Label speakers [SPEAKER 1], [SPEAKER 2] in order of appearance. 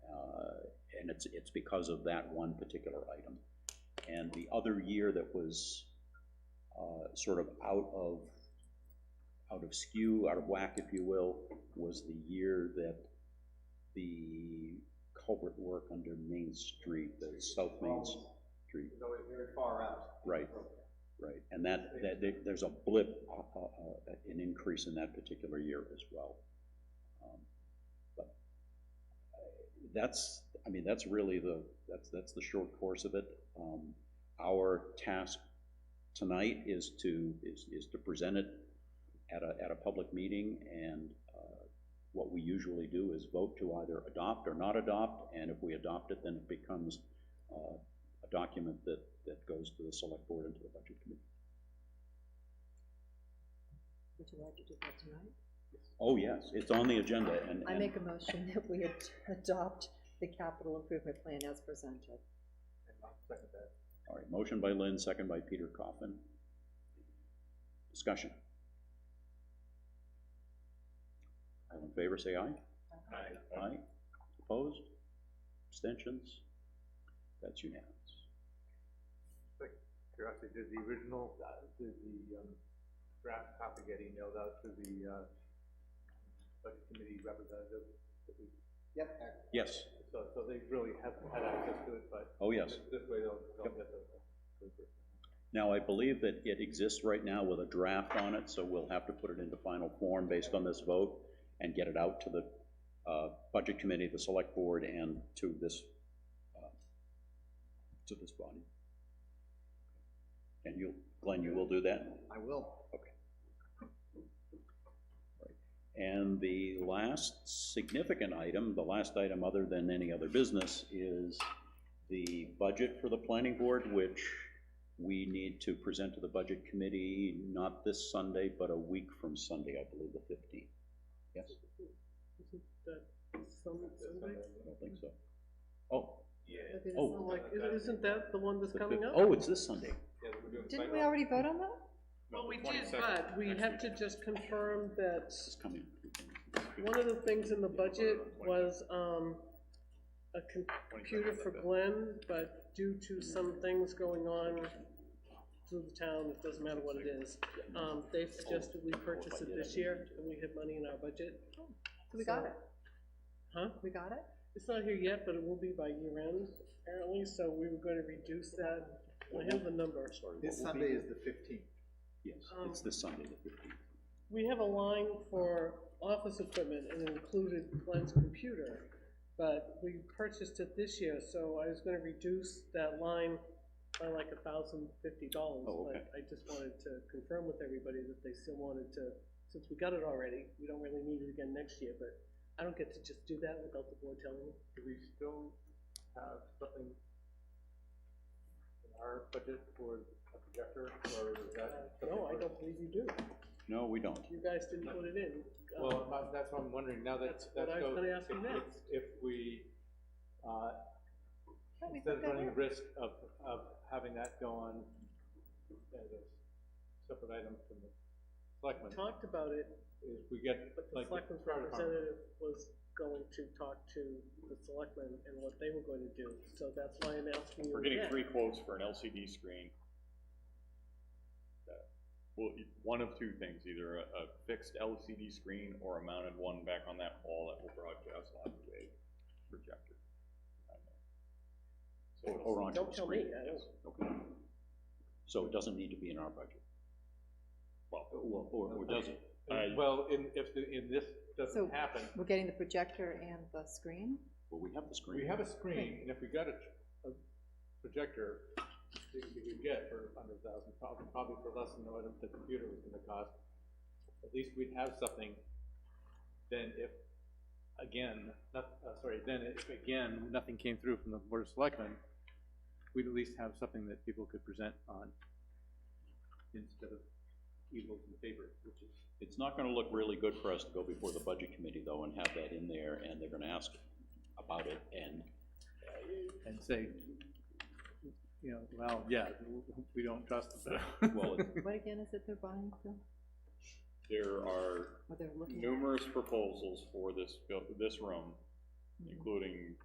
[SPEAKER 1] Uh, it's, it's because of that one particular item. And the other year that was, uh, sort of out of, out of skew, out of whack, if you will, was the year that the culvert work under Main Street, the South Main Street,
[SPEAKER 2] So it's Oh. very far out.
[SPEAKER 1] Right. right, and that, that, there- there's a blip, uh, uh, uh, an increase in that particular year as well. Um, But uh, that's, I mean, that's really the, that's, that's the short course of it. Um, Our task tonight is to, is, is to present it at a, at a public meeting, and uh, what we usually do is vote to either adopt or not adopt, and if we adopt it, then it becomes uh, a document that, that goes to the select board and to the budget committee.
[SPEAKER 3] Would you like to do that tonight?
[SPEAKER 1] Oh, yes, it's on the agenda, and,
[SPEAKER 3] I
[SPEAKER 1] and
[SPEAKER 3] make a motion that we ad- adopt the capital improvement plan as presented.
[SPEAKER 1] All right, motion by Lynn, second by Peter Coffin. Discussion. All in favor, say aye. Aye. Opposed? Abstentions? That's unanimous.
[SPEAKER 2] Curiosity, did the original, uh, did the, um, draft copy get emailed out to the, uh, budget committee representative? Yep.
[SPEAKER 1] Yes,
[SPEAKER 2] So, so they really haven't had access to it, but
[SPEAKER 1] oh, yes.
[SPEAKER 2] this this way they'll, they'll get the.
[SPEAKER 1] Now, I believe that it exists right now with a draft on it, so we'll have to put it into final form based on this vote and get it out to the uh, Budget Committee, the Select Board, and to this, uh, to this body. And you, Glenn, you will do that?
[SPEAKER 2] I will.
[SPEAKER 1] And the last significant item, the last item other than any other business, is the budget for the planning board, which we need to present to the budget committee, not this Sunday, but a week from Sunday, I believe, the fifteenth. Yes? I don't think so. Oh. Oh.
[SPEAKER 4] Like, i- isn't that the one that's
[SPEAKER 1] the
[SPEAKER 4] coming
[SPEAKER 1] fif-
[SPEAKER 4] up?
[SPEAKER 1] Oh, it's this Sunday.
[SPEAKER 3] Didn't we already vote on that?
[SPEAKER 4] Well, oh, we did, but we have to just confirm that
[SPEAKER 1] This is coming.
[SPEAKER 4] one of the things in the budget was, um, a com- computer for Glenn, but due to some things going on through the town, it doesn't matter what it is, um, they suggested we purchase it this year, and we had money in our budget,
[SPEAKER 3] So we got
[SPEAKER 4] So-
[SPEAKER 3] it,
[SPEAKER 4] huh?
[SPEAKER 3] we got it?
[SPEAKER 4] It's not here yet, but it will be by year end, apparently, so we were gonna reduce that, I have the number.
[SPEAKER 1] Sorry, what
[SPEAKER 2] This
[SPEAKER 1] will be-
[SPEAKER 2] Sunday is the fifteenth.
[SPEAKER 1] Yes,
[SPEAKER 4] Oh.
[SPEAKER 1] it's this Sunday, the fifteenth.
[SPEAKER 4] We have a line for office equipment and it included Glenn's computer, but we purchased it this year, so I was gonna reduce that line by like a thousand fifty dollars.
[SPEAKER 1] Oh, okay.
[SPEAKER 4] But I just wanted to confirm with everybody that they still wanted to, since we got it already, we don't really need it again next year, but I don't get to just do that without the board telling me.
[SPEAKER 2] Do we still have something in our budget for a projector, or is that?
[SPEAKER 4] No, I don't believe you do.
[SPEAKER 1] No, we don't.
[SPEAKER 4] You guys didn't put it in. Uh,
[SPEAKER 2] Well, that- that's what I'm wondering, now that.
[SPEAKER 4] That's what
[SPEAKER 2] that
[SPEAKER 4] I was
[SPEAKER 2] goes-
[SPEAKER 4] gonna ask you
[SPEAKER 2] if-
[SPEAKER 4] next.
[SPEAKER 2] If if we, uh,
[SPEAKER 3] Don't we
[SPEAKER 2] instead of
[SPEAKER 3] put that
[SPEAKER 2] running
[SPEAKER 3] in?
[SPEAKER 2] risk of, of having that go on as a separate item from the selectmen,
[SPEAKER 4] Talked about it,
[SPEAKER 2] is we get,
[SPEAKER 4] But the
[SPEAKER 2] like.
[SPEAKER 4] selectmen's
[SPEAKER 2] fire department.
[SPEAKER 4] representative was going to talk to the selectmen and what they were going to do, so that's why I'm asking you
[SPEAKER 5] We're getting
[SPEAKER 4] again.
[SPEAKER 5] three quotes for an LCD screen. Uh, Well, e- one of two things, either a a fixed LCD screen or a mounted one back on that wall that will broadcast onto a projector. So it'll-
[SPEAKER 1] Or onto
[SPEAKER 4] Don't
[SPEAKER 1] the
[SPEAKER 4] tell me,
[SPEAKER 1] screen.
[SPEAKER 4] I don't,
[SPEAKER 1] Okay. So it doesn't need to be in our budget? Well, or, or or does it?
[SPEAKER 5] I-
[SPEAKER 2] Well, in, if, the- in this
[SPEAKER 3] So-
[SPEAKER 2] doesn't happen,
[SPEAKER 3] We're getting the projector and the screen?
[SPEAKER 1] Well, we have the
[SPEAKER 2] we
[SPEAKER 1] screen.
[SPEAKER 2] have a screen, and if we got a, a projector, that we could get for under a thousand, probably, probably for less than what the computer was gonna cost, at least we'd have something, then if, again, not, uh, sorry, then if, again, nothing came through from the board of selectmen, we'd at least have something that people could present on instead of evils and favors, which is
[SPEAKER 1] It's not gonna look really good for us to go before the budget committee though and have that in there and they're gonna ask about it and,
[SPEAKER 2] and say, you know, well, yeah, we don't trust them.
[SPEAKER 1] well, it-
[SPEAKER 3] What again is it they're buying, Phil?
[SPEAKER 5] There are
[SPEAKER 3] Or they're looking at?
[SPEAKER 5] numerous proposals for this, buil- this room, including